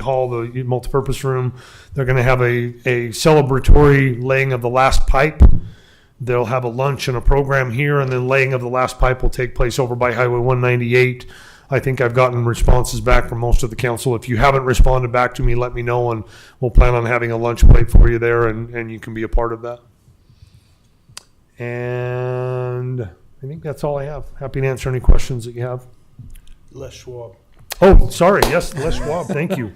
hall, the multipurpose room. They're going to have a, a celebratory laying of the last pipe. They'll have a lunch and a program here, and then laying of the last pipe will take place over by Highway 198. I think I've gotten responses back from most of the council. If you haven't responded back to me, let me know, and we'll plan on having a lunch plate for you there, and, and you can be a part of that. And I think that's all I have. Happy to answer any questions that you have. Les Schwab. Oh, sorry. Yes, Les Schwab. Thank you.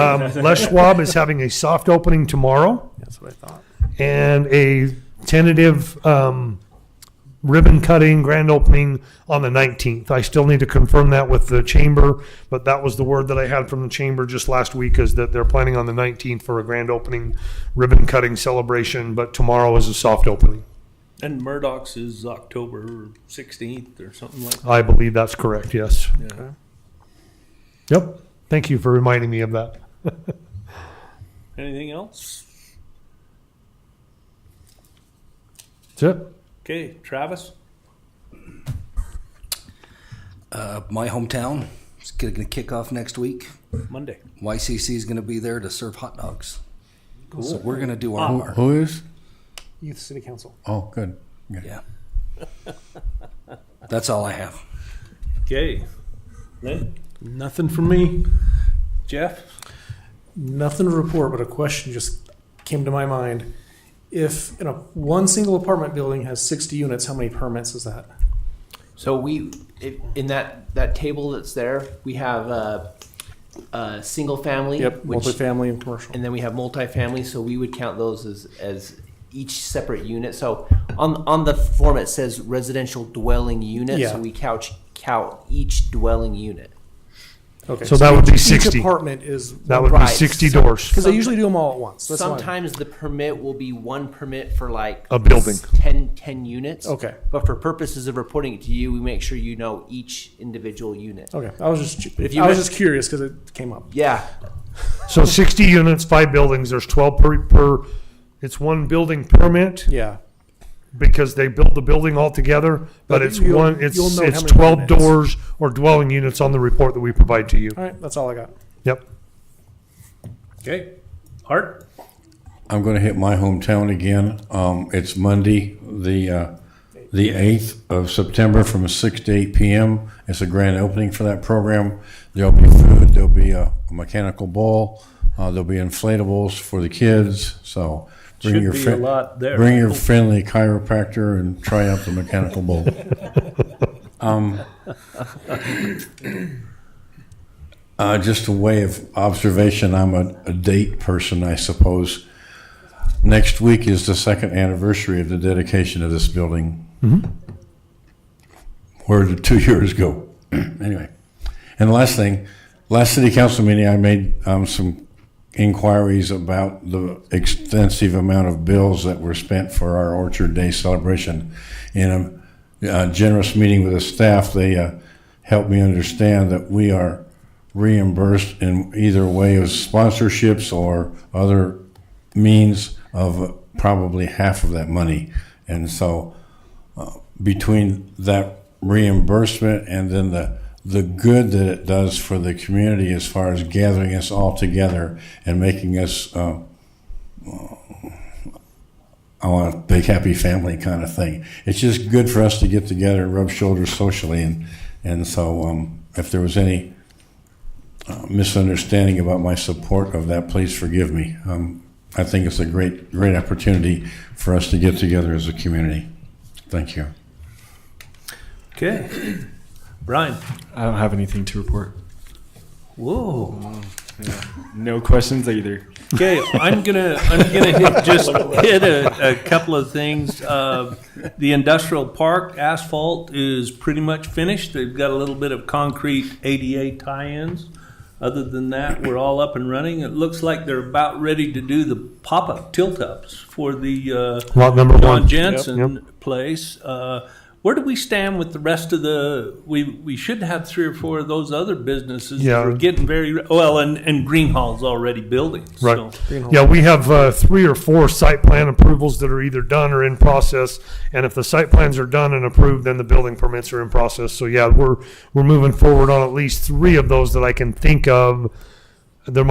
Um, Les Schwab is having a soft opening tomorrow That's what I thought. and a tentative um, ribbon cutting grand opening on the 19th. I still need to confirm that with the chamber, but that was the word that I had from the chamber just last week is that they're planning on the 19th for a grand opening ribbon cutting celebration, but tomorrow is a soft opening. And Murdoch's is October sixteenth or something like I believe that's correct. Yes. that. Okay. Yep. Thank you for reminding me of that. Anything else? That's it. Okay, Travis? Uh, my hometown is going to kick off next week. Monday. YCC is going to be there to serve hot dogs. So we're going to do our Wow. part. Who is? Youth City Council. Oh, good. Yeah. Yeah. That's all I have. Okay. Lynn? Nothing from me. Jeff? Nothing to report, but a question just came to my mind. If you know, one single apartment building has 60 units, how many permits is that? So we, if, in that, that table that's there, we have a, uh single family. Yep, which- multifamily and commercial. And then we have multifamily, so we would count those as, as each separate unit. So on, on the form, it says residential dwelling unit, Yeah. so we couch, count each dwelling unit. Okay, So that would be each- 60. Each apartment is That would be Right. 60 doors. because they usually do them all at once. That's why- Sometimes the permit will be one permit for like. A building. s- 10 10 units. Okay. But for purposes of reporting it to you, we make sure you know each individual unit. Okay, I was just if if you you I was went- just curious because it came up. Yeah, So sixty units, five buildings, there's twelve per, per, it's one building permit Yeah, because they build the building all together, but But it's you'll- one, it's, you'll know how it's many twelve units. doors or dwelling units on the report that we provide to you. all right, that's all I got. Yep. Okay. Hart? I'm going to hit my hometown again. Um, it's Monday, the uh, the eighth of September, from six to eight p.m. It's a grand opening for that program. There'll be food. There'll be a, a mechanical ball. Uh, there'll be inflatables for the kids. So bring Should your be a friend. lot there. Bring your friendly chiropractor and try out the mechanical bull. Um, uh, just a way of observation, I'm a, a date person, I suppose. Next week is the second anniversary of the dedication of this building. Where did two years go? anyway. And the last thing, last city council meeting, I made um, some inquiries about the extensive amount of bills that were spent for our Orchard Day celebration. In a uh, generous meeting with the staff, they uh, helped me understand that we are reimbursed in either way of sponsorships or other means of probably half of that money. And so uh, between that reimbursement and then the the good that it does for the community as far as gathering us all together and making us uh, I want a big happy family kind of thing. It's just good for us to get together and rub shoulders socially and and so um, if there was any uh, misunderstanding about my support of that, please forgive me. Um, I think it's a great great opportunity for us to get together as a community. Thank you. Okay. Brian? I don't have anything to report. Whoa. No questions either. Okay, I'm gonna, I'm gonna hit- just hit a, a couple of things. Uh, The industrial park asphalt is pretty much finished. They've got a little bit of concrete ADA tie-ins. Other than that, we're all up and running. It looks like they're about ready to do the pop-up tilt-ups for the, uh, Lot number John one. Jensen place. Uh, where do we stand with the rest of the? We we should have three or four of those other businesses. Yeah. we're getting very well, and and Greenhall's already building. So. Right. Yeah, we have uh, three or four site plan approvals that are either done or in process. And if the site plans are done and approved, then the building permits are in process. So yeah, we're, we're moving forward on at least three of those that I can think of